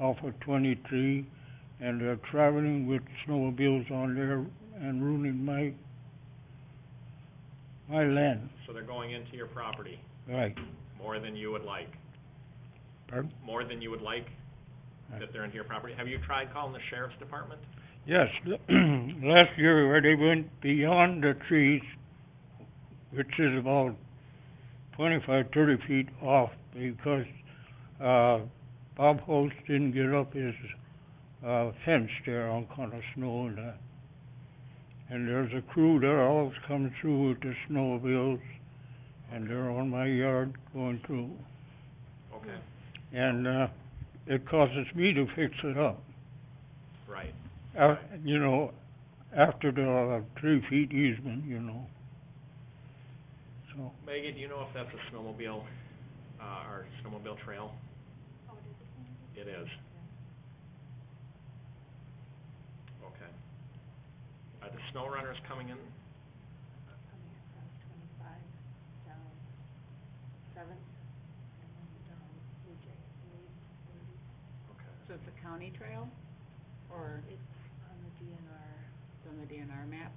off of twenty-three, and they're traveling with snowmobiles on there and ruining my, my land. So they're going into your property, Right, more than you would like, pardon? more than you would like, that they're into your property. Have you tried calling the sheriff's department? Yes, last year where they went beyond the trees, which is about twenty-five, thirty feet off because, uh, Bob Holst didn't get up his, uh, fence there on kind of snow and that. And there's a crew there always comes through with the snowmobiles and they're on my yard going through. Okay. And, uh, it causes me to fix it up. Right, Uh, you know, after the uh, three feet easement, you know. So, Megan, do you know if that's a snowmobile, uh, or snowmobile trail? Oh, it is a snowmobile? It is. Okay. Are the snow runners coming in? Okay. So it's a county trail, or? It's on the DNR. It's on the DNR map?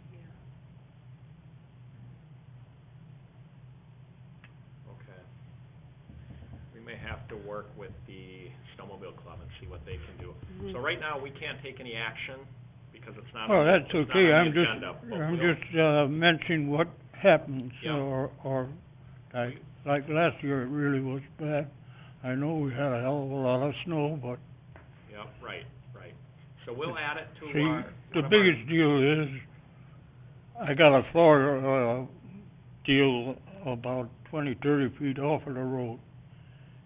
Okay. We may have to work with the snowmobile club and see what they can do. Hmm. So right now, we can't take any action because it's not well, on, that's it's not okay, I'm on the agenda. just, but I'm we'll- just, uh, mentioning what happens, Yeah. or, or, like, like last year, it really was bad. I know we had a hell of a lot of snow, but Yep, right, right. So we'll add it to See, our. the one of our- biggest deal is, I got a Florida, uh, deal about twenty, thirty feet off of the road.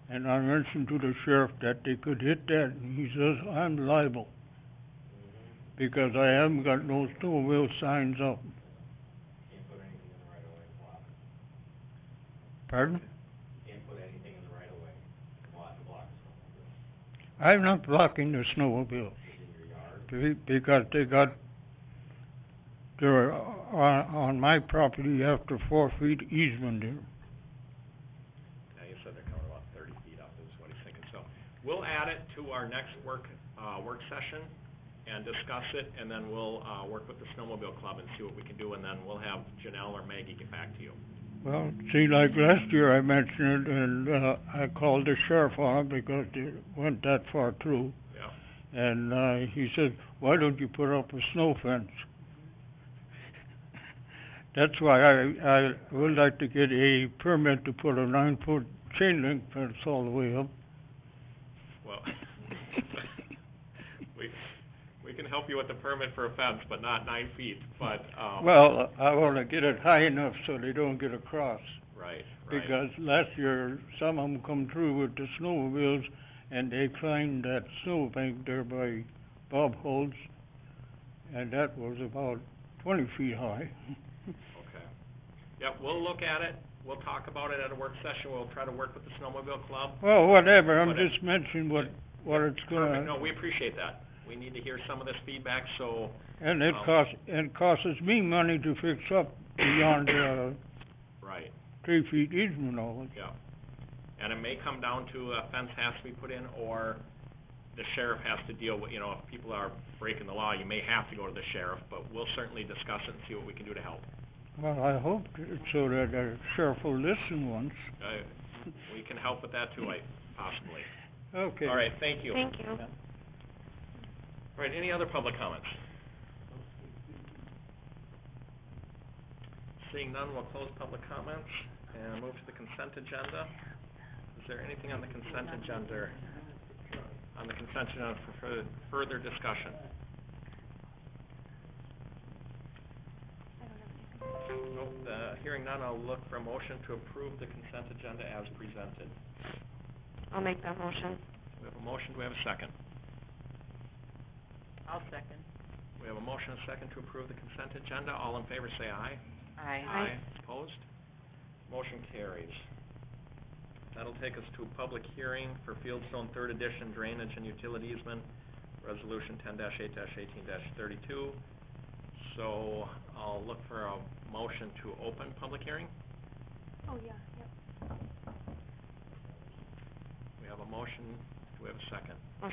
And I mentioned to the sheriff that they could hit that, and he says, I'm liable. Because I haven't got no snowmobile signs up. Pardon? I'm not blocking the snowmobile. Be- Because they got, they're on, on my property after four feet easement there. Yeah, you said they're coming about thirty feet up is what he's thinking, so. We'll add it to our next work, uh, work session and discuss it, and then we'll, uh, work with the snowmobile club and see what we can do, and then we'll have Janelle or Maggie get back to you. Well, see, like last year I mentioned it and, uh, I called the sheriff on it because they went that far through. Yeah. And, uh, he said, why don't you put up a snow fence? That's why I, I would like to get a permit to put a nine-foot chain link fence all the way up. Well, we, we can help you with the permit for a fence, but not nine feet, but, um, Well, I wanna get it high enough so they don't get across, right, right, because last year, some of them come through with the snowmobiles, and they climbed that snow bank there by Bob Holt's, and that was about twenty feet high. okay. Yep, we'll look at it, we'll talk about it at a work session, we'll try to work with the snowmobile club. Well, whatever, I'm Whatever. just mentioning what, what it's gonna, Perfect, no, we appreciate that. We need to hear some of this feedback, so, and it Um, costs, it costs me money to fix up beyond, uh, right, three feet easement all yeah. And it may come down to a fence has to be put in, or the sheriff has to deal with, you know, if people are breaking the law, you may have to go to the sheriff, but we'll certainly discuss it and see what we can do to help. Well, I hope t- so that the sheriff will listen once. Uh, we can help with that too, I, possibly. Okay. All right, thank you. All Thank you. right, any other public comments? Seeing none, we'll close public comments and move to the consent agenda. Is there anything on the consent agenda, on the consent agenda for fur- further discussion? Nope, uh, hearing none, I'll look for a motion to approve the consent agenda as presented. I'll make that motion. We have a motion, do we have a second? I'll second. We have a motion and a second to approve the consent agenda. All in favor, say aye. Aye. Aye. Opposed? Motion carries. That'll take us to a public hearing for Fieldstone Third Edition Drainage and Utility Easement, Resolution ten eight eighteen thirty-two. So I'll look for a motion to open public hearing. Oh, yeah, yep. We have a motion. Do we have a second?